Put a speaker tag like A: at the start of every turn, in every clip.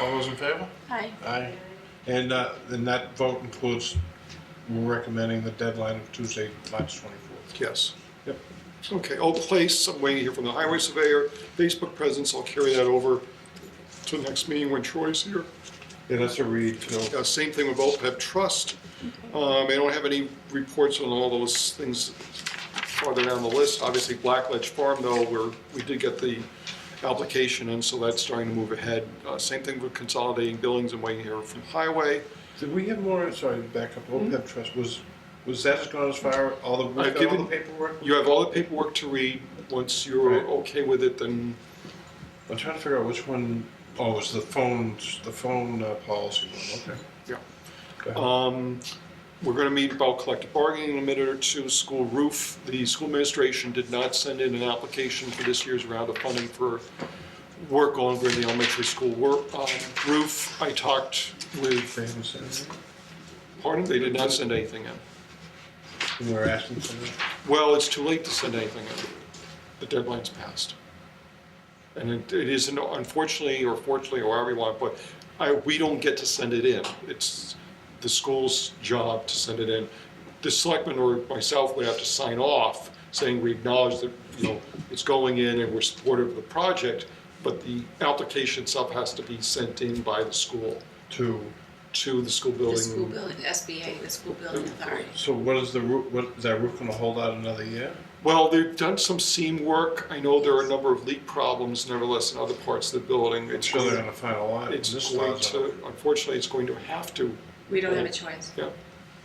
A: All those in favor?
B: Aye.
A: Aye. And, uh, and that vote includes, we're recommending the deadline of Tuesday, March twenty-fourth.
C: Yes.
A: Yep.
C: Okay, I'll place, I'm waiting here from the highway surveyor, Facebook presence, I'll carry that over to the next meeting when Troy's here.
A: Yeah, that's a read, you know.
C: Uh, Same thing with OPEB trust. Um, I don't have any reports on all those things farther down the list. Obviously, Black Ledge Farm, though, where we did get the application, and so that's starting to move ahead. Uh, Same thing with consolidating billings and waiting here from highway.
A: Did we have more, sorry, back up, OPEB trust, was, was that as gone as far, all the, we
C: I've
A: got all the
C: given-
A: paperwork?
C: You have all the paperwork to read. Once you're
A: Right.
C: okay with it, then
A: I'm trying to figure out which one, oh, it was the phone, the phone uh, policy one, okay.
C: Yeah.
A: Go ahead.
C: Um, We're going to meet about collective bargaining in a minute or two, school roof. The school administration did not send in an application for this year's round of funding for work over the elementary school wor- um, roof. I talked with,
A: Famous senator.
C: pardon, they did not send anything in.
A: We were asking for that.
C: Well, it's too late to send anything in. The deadline's passed. And it it isn't, unfortunately, or fortunately, or however you want, but I, we don't get to send it in. It's the school's job to send it in. The selectman or myself would have to sign off saying we acknowledge that, you know, it's going in and we're supportive of the project, but the application itself has to be sent in by the school
A: To,
C: to the school building.
B: The school building, SBA, the school building authority.
A: so what is the roof, what, is that roof gonna hold out another year?
C: Well, they've done some seam work. I know there are a number of leak problems nevertheless in other parts of the building.
A: I'm
C: It's
A: sure they're
C: going,
A: gonna find a lot. in
C: it's
A: this
C: going
A: lot, though.
C: to, unfortunately, it's going to have to,
B: We don't have a choice.
C: yeah.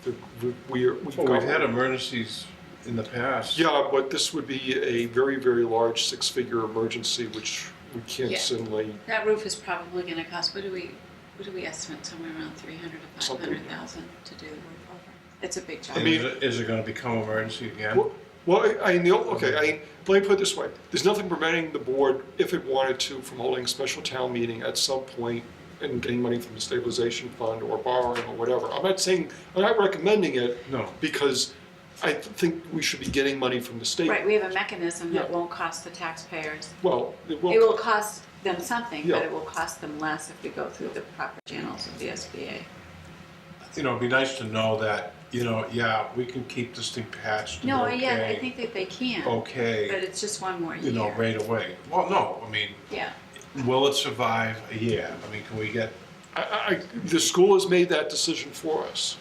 C: The- we- We are, we've
A: Well, we've had
C: got.
A: emergencies in the past.
C: Yeah, but this would be a very, very large six-figure emergency, which we can't
B: Yeah.
C: suddenly,
B: That roof is probably gonna cost, what do we, what do we estimate, somewhere around three hundred to five
C: Something.
B: hundred thousand to do the roof over? It's a big job.
A: And
C: mean-
A: is it- is it gonna become emergency again?
C: Well- well, I- I, know- okay, I, let me put it this way. There's nothing preventing the board, if it wanted to, from holding a special town meeting at some point and getting money from the stabilization fund or borrowing or whatever. I'm not saying, I'm not recommending it.
A: No.
C: Because I th- think we should be getting money from the state.
B: Right, we have a mechanism that
C: Yeah.
B: won't cost the taxpayers.
C: Well, it
B: It will
C: will,
B: cost them something, but
C: Yeah.
B: it will cost them less if we go through the proper channels of the SBA.
A: You know, it'd be nice to know that, you know, yeah, we can keep this thing patched and
B: No, yeah, I
A: okay-
B: think that they can, but
A: Okay,
B: it's just one more
A: you know,
B: year.
A: right away. Well, no, I mean,
B: Yeah,
A: will it survive a year? I mean, can we get,
C: I, I, I- the school has made that decision for us.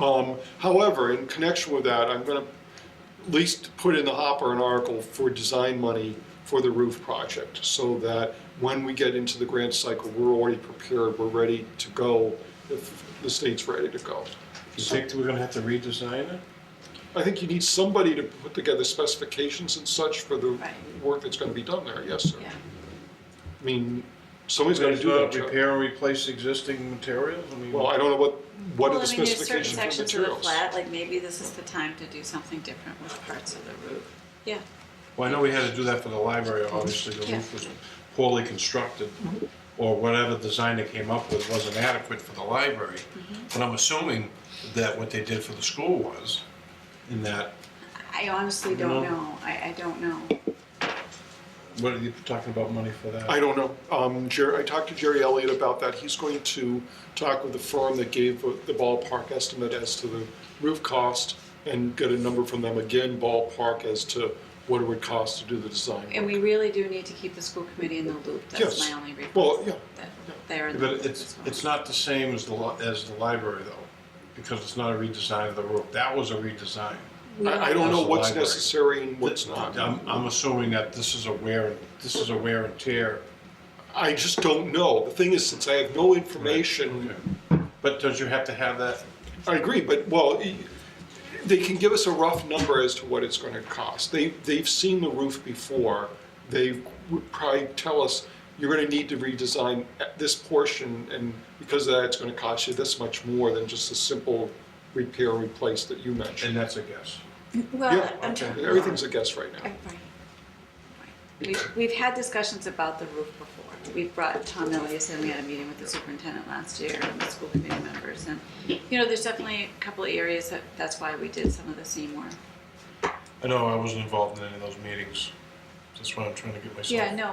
C: Um, however, in connection with that, I'm gonna at least put in the hopper an article for design money for the roof project, so that when we get into the grant cycle, we're already prepared, we're ready to go, if the state's ready to go.
A: you think that we're gonna have to redesign it?
C: I think you need somebody to put together specifications and such for the
B: Right.
C: work that's gonna be done there, yes, sir.
B: yeah.
C: I mean, somebody's gonna
A: Somebody's
C: do
A: gonna
C: that job.
A: repair and replace existing materials? I mean,
C: Well, I don't know what, what are
B: Well,
C: the
B: I mean, there's certain
C: specifications for
B: sections of the
C: materials?
B: flat, like maybe this is the time to do something different with parts of the roof. Yeah,
A: Well, I know we had to do that for the library, obviously, the
B: Yeah.
A: roof was poorly constructed, or whatever design they came up with wasn't adequate for the library. But I'm assuming that what they did for the school was, in that,
B: I honestly don't
A: No.
B: know, I, I don't know.
A: what are you talking about money for that?
C: I don't know. Um, Jerry, I talked to Jerry Elliott about that. He's going to talk with the firm that gave the ballpark estimate as to the roof cost and get a number from them again, ballpark, as to what it would cost to do the design.
B: And we really do need to keep the school committee in the loop, that's
C: Yes.
B: my only request.
C: Well, yeah,
B: That they're in the
A: But
B: loop
A: it's,
B: as well.
A: it's not the same as the, li- as the library though, because it's not a redesign of the roof, that was a redesign.
B: We
C: I, I don't know
A: That's the
C: what's
A: library. um,
C: necessary and what's
A: I'm,
C: not.
A: I'm assuming that this is a wear, and- this is a wear and tear.
C: I just don't know. The thing is, since I have no information,
A: But don't you have to have that
C: I agree, but, well, e- they can give us a rough number as to what it's gonna cost. They, they've seen the roof before, they would probably tell us, you're gonna need to redesign at this portion, and because of that, it's gonna cost you this much more than just a simple repair and replace that you
A: And
C: mentioned.
A: that's a guess.
B: Well,
C: Yeah,
B: I'm
A: okay.
B: trying.
C: everything's a guess right now.
B: Right. Right. We've, we've had discussions about the roof before. We've brought Tom Elias in, we had a meeting with the superintendent last year and the school committee members. And, you know, there's definitely a couple of areas that, that's why we did some of the same work.
A: I know I wasn't involved in any of those meetings. That's why I'm trying to get myself.
B: Yeah, no,